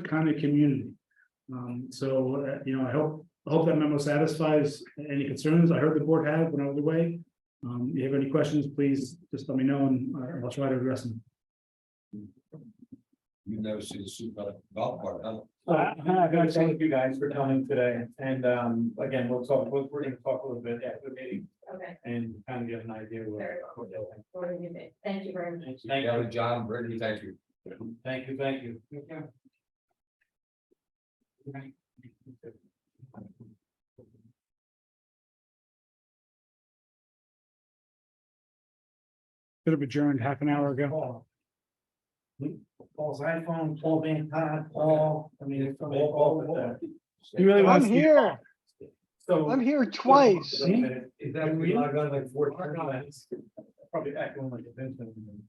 kind of community. Um, so, uh, you know, I hope, I hope that memo satisfies any concerns I heard the board had when I was away. Um, if you have any questions, please just let me know and I- I'll try to address them. You've never seen a super golf cart, huh? Uh, I gotta thank you guys for coming today, and, um, again, we'll talk, we're, we're gonna talk a little bit after the meeting Okay, and kind of get an idea where. we're going. order you did. Thank you very much. Thank Thank you, you, John, Brittany, thank you. thank you, thank you. Could have adjourned half an hour ago. Paul. Paul's iPhone, Paul Van Todd, Paul, I mean, it's all, all of that. You really I'm want to? here. So. I'm here twice. Is that we log on like four times? Probably echoing like a benjamin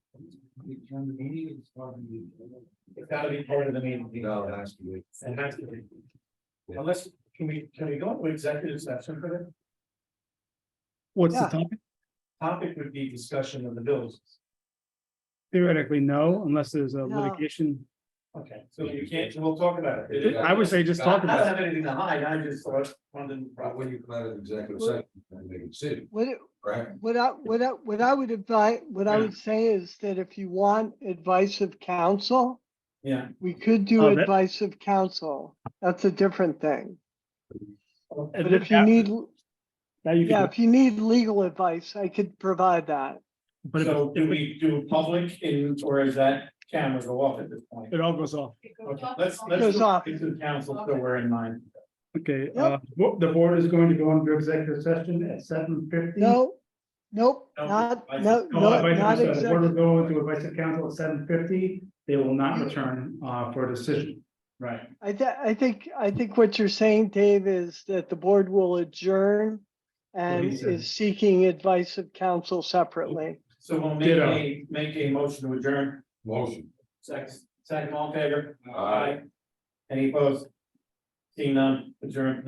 Turn the meeting and start the meeting. It's gotta be part of the meeting. No, that's good. And that's the thing. Unless, can we, can we go into executive session for the What's the Yeah. topic? topic would be discussion of the bills? Theoretically, no, unless there's a No. litigation. Okay, so you can't, we'll talk about it. Yeah. I would say just I talk don't about it. have anything to hide, I just thought, wanted Right, to. when you come out of executive session, then make a decision, What, right? what I, what I, what I would advise, what I would say is that if you want advice of counsel, Yeah, we could do Oh, that- advice of counsel. That's a different thing. And But then if you need, Now you yeah, can, if you need legal advice, I could provide that. but if- so do we do public in, or is that camera go off at this point? it all goes off. Okay, let's, let's Goes do off. it to the council, so we're in mind. Okay, uh, bo- the board is going to go into executive session at seven fifty. No, nope, No, not, advice- no, No, no, advice- not the board will exactly. go into advice of council at seven fifty. They will not Mm. return, uh, for a decision. Right. I, thi- I think, I think what you're saying, Dave, is that the board will adjourn and Lisa. is seeking advice of counsel separately. So we'll make Ditto. a, make a motion to adjourn, Motion. second, second all in favor? Aye. Any opposed? Seeing none, adjourn,